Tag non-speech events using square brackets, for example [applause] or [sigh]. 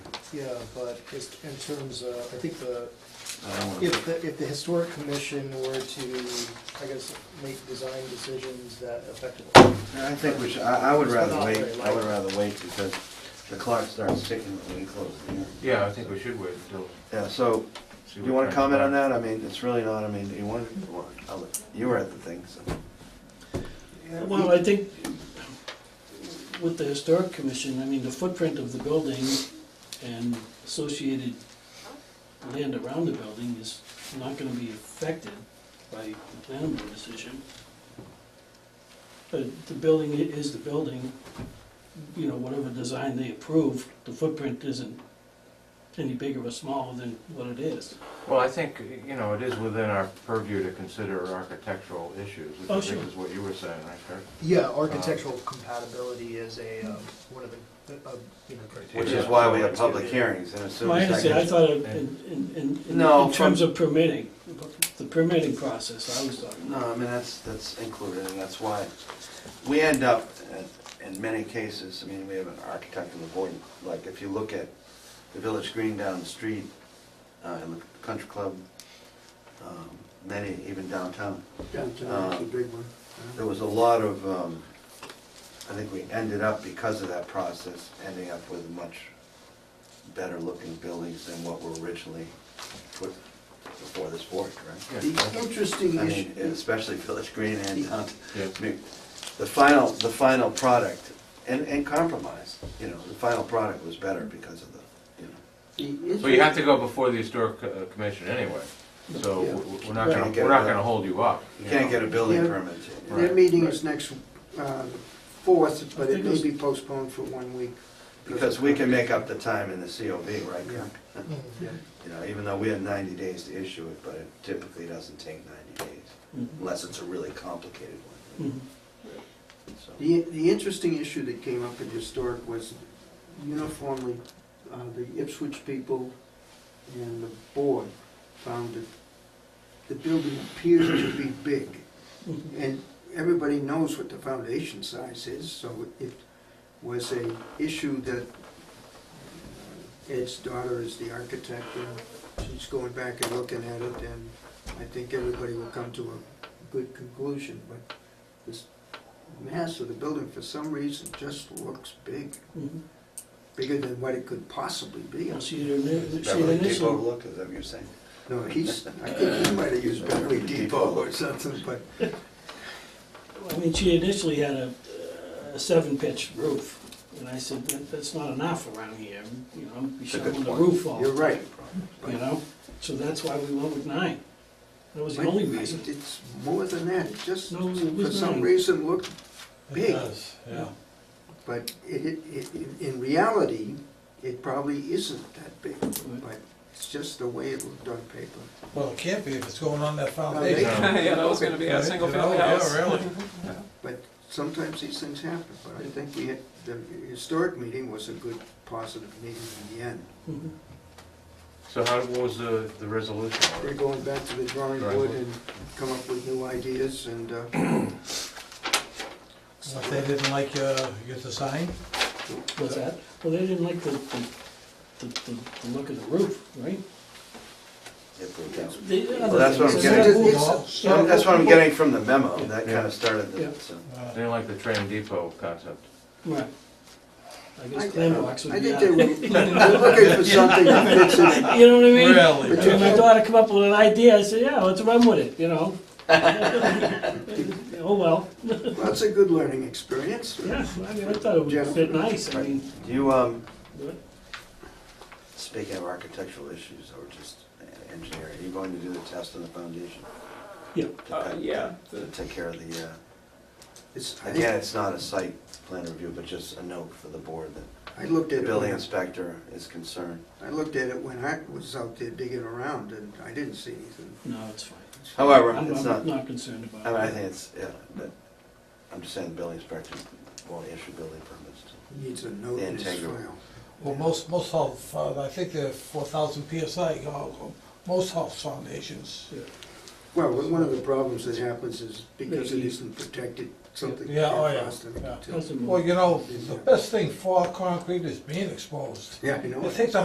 Yeah, but just in terms of, I think the, I don't wanna- if the, if the historic commission were to, I guess, make design decisions that affect. I think we should, I, I would rather wait, I would rather wait because the clock starts ticking when we close the hearing. Yeah, I think we should wait until. Yeah, so, see do you what wanna comment on transpires. that? I mean, it's really not, I mean, you want, you want- I'll- you were at the thing, so. Well, I think with the historic commission, I mean, the footprint of the building and associated land around the building is not gonna be affected by the planning board decision. But the building i- is the building, you know, whatever design they approve, the footprint isn't any bigger or smaller than what it is. Well, I think, you know, it is within our purview to consider architectural issues, which Oh, I think sure. is what you were saying, right, Kurt? Yeah, architectural compatibility is a, um, one of the, uh, you know. Which is why we have public hearings and as soon My as I understanding, I can. thought of- in, in- in, in, No, in terms of permitting, the permitting process, I was talking. No, I mean, that's, that's included and that's why we end up, uh, in many cases, I mean, we have an architect on the board. Like, if you look at the Village Green down the street, uh, and the country club, um, many even downtown, uh, It's a big one. there was a lot of, um, I think we ended up, because of that process, ending up with much better looking buildings than what were originally put before this board, right? The interesting I mean, issue, especially Village Green and downtown. Yeah. I mean, The final, the final product, and, and compromise, you know, the final product was better because of the, you know. the But you have issue, to go before the historic uh, commission anyway, so Yeah. we- we're not Right. gonna, Can't get we're not it gonna done. hold you up. You can't get a building Yeah. permit. their Right, meeting right. is next, uh, fourth, but I it think may it's- be postponed for one week. Because we can make up the time in the COV, right? Yeah. Kurt? Yeah. [laughs] You know, even though we have ninety days to issue it, but it typically doesn't take ninety days, Mm-hmm. unless it's a really complicated one. Mhm. So, The, the interesting issue that came up in historic was uniformly, uh, the Ipswich people and the board found that the building appeared to be big. And everybody knows what the foundation size is, so it was a issue that uh, Ed's daughter is the architect, and she's going back and looking at it, and I think everybody will come to a good conclusion, but this mass of the building, for some reason, just looks big, Mhm. bigger than what it could possibly be. Yeah, she had her, she had Beverly Depot initial- look, is that what you're saying? No, he's, I think he might have used Beverly Depot or something, but I mean, she initially had a, a seven pitch roof, and I said, "That- that's not enough around here, you know, be It's a good shoveling the point. roof off, you're you right. know? So that's why we went with nine. That was the But only reason. It's more than that, it just, No, it for was some nine. reason, looked big. Yeah. But it, it, it- in- in reality, it probably isn't that big, but it's just the way it looked on paper. Well, it can't be if it's going on that they- foundation. [laughs] Yeah, that was gonna be a Right? single You family know, house. Yeah, really. But sometimes these things happen, but I think we had, the historic meeting was a good, positive meeting in the end. Mhm. So how, what was the, the resolution? They're going back to the drawing Drawing board board. and come up with new ideas and, uh, So If they didn't like uh, your design, What's that? Well, they didn't like the, the, the, the the look of the roof, right? If we can. They- other Well, that's what things. I'm getting- So, It's- well, So that's what I'm getting from the memo, and that kind Yeah. of started Yeah. the, so. uh, Didn't like the train depot concept. Right. I I- guess clam box would I be think out. [laughs] they were they're looking for something that fits in. You know what I mean? But when really. my daughter come up with an idea, I say, yeah, let's run with it, you [laughs] know? Oh, well, Well, That's a good learning experience. yeah, I mean, I thought it would fit nice, I mean, Do you, um, what? speaking of architectural issues or just engineering, are you going to do the test on the foundation? Yeah. To Uh, cut- yeah, To take care of the, uh, It's, I again, think, it's not a site plan review, but just a note for the board that I looked the at it, building when- inspector is concerned. I looked at it when I was out there digging around and I didn't see anything. No, it's fine. However, I'm it's I'm not, not concerned I mean, I about it. think it's, yeah, but I'm just saying the building inspector won't issue building permits to He Needs a note The in his integrity. file. Well, most, most health, uh, I think they're four thousand PSI, you know, most health foundations. Well, one of the problems that happens is because it Maybe. isn't protected, something Yeah, can't oh, yeah, cross them yeah. till- Doesn't- Well, you know, the best thing for concrete is being exposed. Yeah, I know. It takes a